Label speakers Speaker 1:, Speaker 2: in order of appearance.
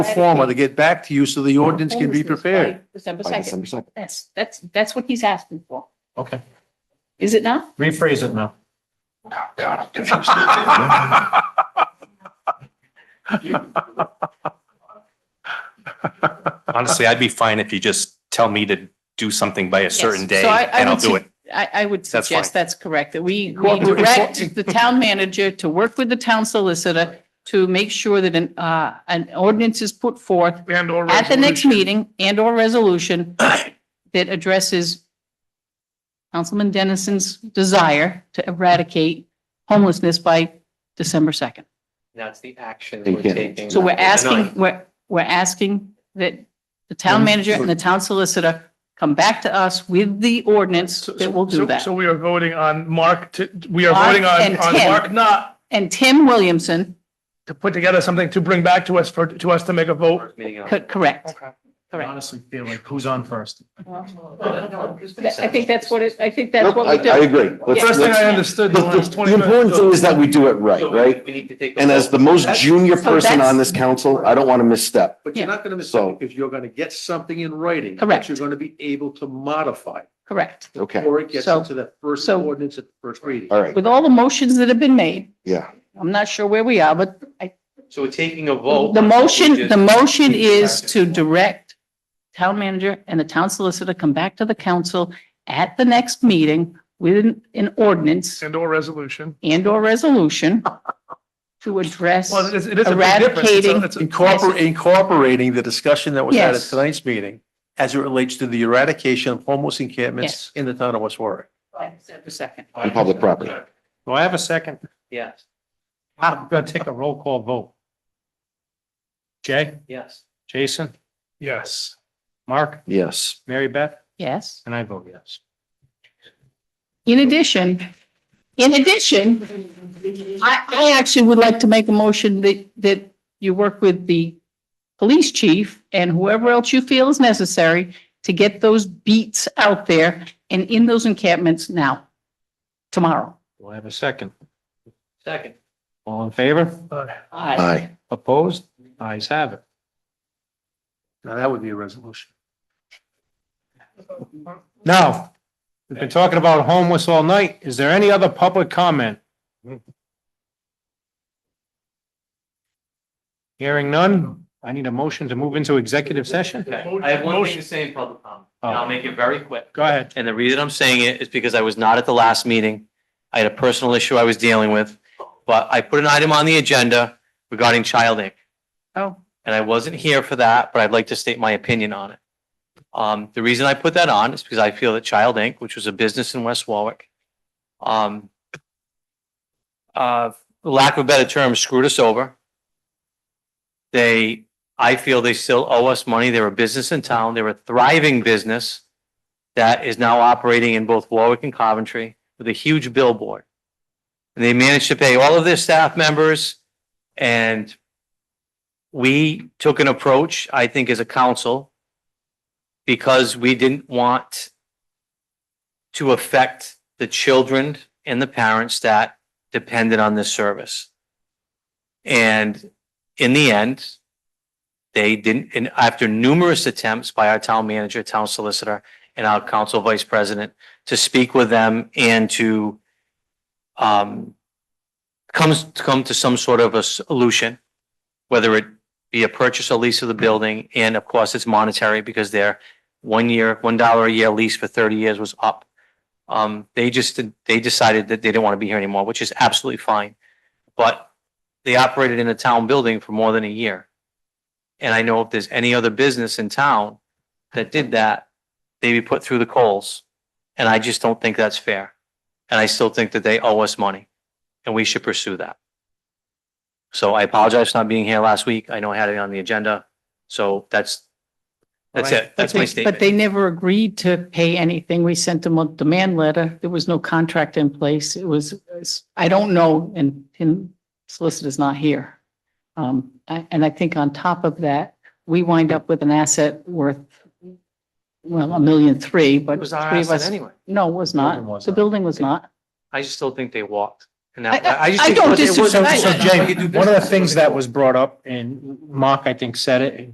Speaker 1: forma to get back to you so the ordinance can be
Speaker 2: Ordinance by
Speaker 1: prepared.
Speaker 2: Oh, December
Speaker 3: by
Speaker 2: second.
Speaker 3: December second.
Speaker 2: That's, that's, that's what he's asking for.
Speaker 4: Okay,
Speaker 2: Is it not?
Speaker 4: rephrase it now.
Speaker 5: Honestly, I'd be fine if you just tell me to do something by a certain
Speaker 2: Yes.
Speaker 5: day
Speaker 2: So I- I
Speaker 5: and I'll
Speaker 2: would
Speaker 5: do it.
Speaker 2: I, I would
Speaker 5: That's
Speaker 2: suggest that's correct, that we, we
Speaker 1: Cooperate-
Speaker 2: direct the town manager to work with the town solicitor to make sure that an, uh, an ordinance is put forth
Speaker 6: And or
Speaker 2: at the next
Speaker 6: resolution.
Speaker 2: meeting and or resolution that addresses Councilman Dennison's desire to eradicate homelessness by December second.
Speaker 7: That's the action
Speaker 3: They
Speaker 7: we're
Speaker 3: get it.
Speaker 7: taking.
Speaker 2: So we're
Speaker 7: not the
Speaker 2: asking,
Speaker 7: denial.
Speaker 2: we're, we're asking that the town manager and the town solicitor come back to us with the ordinance
Speaker 6: So-
Speaker 2: that will
Speaker 6: so-
Speaker 2: do that.
Speaker 6: So we are voting on Mark to, we are
Speaker 2: Mark
Speaker 6: voting on,
Speaker 2: and
Speaker 6: on
Speaker 2: Tim.
Speaker 6: Mark not
Speaker 2: And Tim Williamson,
Speaker 6: to put together something to bring back to us for, to us to make a vote.
Speaker 7: First meeting in
Speaker 2: co- correct.
Speaker 6: Okay.
Speaker 4: I
Speaker 2: Correct.
Speaker 4: honestly feel like who's on first?
Speaker 2: I think that's what it, I think that's
Speaker 3: Nope,
Speaker 2: what we
Speaker 3: I, I
Speaker 2: do.
Speaker 3: agree. Let's-
Speaker 6: First thing
Speaker 3: let's-
Speaker 6: I understood in the
Speaker 3: The
Speaker 6: last
Speaker 3: the
Speaker 6: twenty minutes.
Speaker 3: important thing is that we do it right,
Speaker 7: October.
Speaker 3: right?
Speaker 7: We need to take. a
Speaker 3: And as the
Speaker 7: vote.
Speaker 3: most junior
Speaker 2: So
Speaker 3: person
Speaker 2: that's-
Speaker 3: on this council, I don't want to misstep.
Speaker 1: But you're
Speaker 2: Yeah.
Speaker 1: not going to miss
Speaker 3: So-
Speaker 1: it because you're going to get something in writing.
Speaker 2: Correct.
Speaker 1: That you're going to be able to modify
Speaker 2: Correct.
Speaker 3: Okay,
Speaker 1: before it gets
Speaker 2: So-
Speaker 1: into the first
Speaker 2: so-
Speaker 1: ordinance at the first reading.
Speaker 3: all right,
Speaker 2: With all the motions that have been made,
Speaker 3: yeah.
Speaker 2: I'm not sure where we are, but I,
Speaker 7: So we're taking a vote.
Speaker 2: the
Speaker 7: on
Speaker 2: motion, the
Speaker 7: just-
Speaker 2: motion is to direct town manager and the town solicitor come back to the council at the next meeting with an- an ordinance
Speaker 6: And or resolution.
Speaker 2: and or resolution to address.
Speaker 6: Well, it is, it is a big difference. It's a-
Speaker 2: Eradicating-
Speaker 6: it's a-
Speaker 1: Incorporate, incorporating the discussion that was had at
Speaker 2: Yes.
Speaker 1: tonight's meeting as it relates to the eradication of homeless encampments
Speaker 2: Yes.
Speaker 1: in the town of West Warwick.
Speaker 2: Just a second.
Speaker 3: On public property.
Speaker 4: Do I have a second?
Speaker 7: Yes,
Speaker 4: I'm gonna take a roll call vote. Jay,
Speaker 7: yes.
Speaker 4: Jason,
Speaker 6: Yes.
Speaker 4: Mark,
Speaker 3: Yes.
Speaker 4: Mary Beth,
Speaker 2: Yes.
Speaker 4: and I vote yes.
Speaker 2: In addition, in addition, I, I actually would like to make a motion that, that you work with the police chief and whoever else you feel is necessary to get those beats out there and in those encampments now, tomorrow.
Speaker 4: Do I have a second?
Speaker 7: Second.
Speaker 4: All in favor?
Speaker 3: Aye.
Speaker 4: Opposed? Eyes have it.
Speaker 1: Now, that would be a resolution.
Speaker 4: Now, we've been talking about homeless all night. Is there any other public comment? Hearing none, I need a motion to move into executive session.
Speaker 7: Okay. I have one thing to say in public comment.
Speaker 4: Oh.
Speaker 7: and I'll make it very quick.
Speaker 4: Go ahead.
Speaker 7: And the reason I'm saying it is because I was not at the last meeting. I had a personal issue I was dealing with, but I put an item on the agenda regarding child ink.
Speaker 2: Oh.
Speaker 7: And I wasn't here for that, but I'd like to state my opinion on it. Um, the reason I put that on is because I feel that Child Inc., which was a business in West Warwick, um, uh, for lack of a better term, screwed us over. They, I feel they still owe us money. They're a business in town. They're a thriving business that is now operating in both Warwick and Coventry with a huge billboard. And they managed to pay all of their staff members and we took an approach, I think, as a council because we didn't want to affect the children and the parents that depended on this service. And in the end, they didn't, and after numerous attempts by our town manager, town solicitor, and our council vice president to speak with them and to um, comes, come to some sort of a solution, whether it be a purchase or lease of the building, and of course, it's monetary because their one year, one dollar a year lease for thirty years was up. Um, they just, they decided that they didn't want to be here anymore, which is absolutely fine. But they operated in a town building for more than a year. And I know if there's any other business in town that did that, they'd be put through the coals. And I just don't think that's fair. And I still think that they owe us money and we should pursue that. So I apologize for not being here last week. I know I had it on the agenda. So that's, that's it. That's my
Speaker 2: But they-
Speaker 7: statement.
Speaker 2: But they never agreed to pay anything. We sent them a demand letter. There was no contract in place. It was, it's- I don't know, and, and solicitor's not here. Um, I- and I think on top of that, we wind up with an asset worth, well, a million three, but
Speaker 7: It was
Speaker 2: three
Speaker 7: our
Speaker 2: of
Speaker 7: asset
Speaker 2: us.
Speaker 7: anyway.
Speaker 2: No, it was
Speaker 4: Building
Speaker 2: not.
Speaker 4: was
Speaker 2: The
Speaker 4: not.
Speaker 2: building was not.
Speaker 7: I just still think they walked. And
Speaker 2: I-
Speaker 7: I, I just
Speaker 2: I
Speaker 7: think
Speaker 2: don't
Speaker 7: what they- what-
Speaker 4: So,
Speaker 2: disagree.
Speaker 4: so Jay, one of the things that was brought up, and Mark, I think, said it,